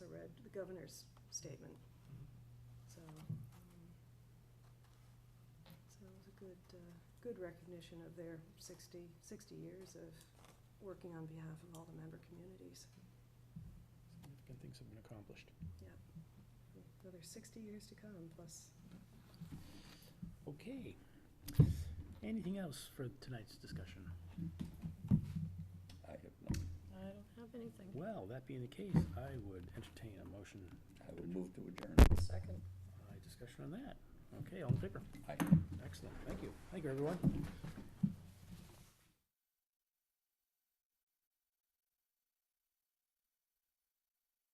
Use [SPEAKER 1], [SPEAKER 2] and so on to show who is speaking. [SPEAKER 1] the governor's statement.
[SPEAKER 2] Mm-hmm.
[SPEAKER 1] So, um, so it was a good, uh, good recognition of their 60 60 years of working on behalf of all the member communities.
[SPEAKER 3] Significant things have been accomplished.
[SPEAKER 2] Mm-hmm.
[SPEAKER 1] Another sixty years to come, plus
[SPEAKER 3] Okay. Anything else for tonight's discussion?
[SPEAKER 4] I have not.
[SPEAKER 2] I don't have anything.
[SPEAKER 3] Well, that being the case, I would entertain a motion,
[SPEAKER 4] I would move to adjourn.
[SPEAKER 2] Second.
[SPEAKER 3] uh, discussion on that. Okay, all in favor?
[SPEAKER 4] Aye.
[SPEAKER 3] Excellent, thank you. Thank you, everyone.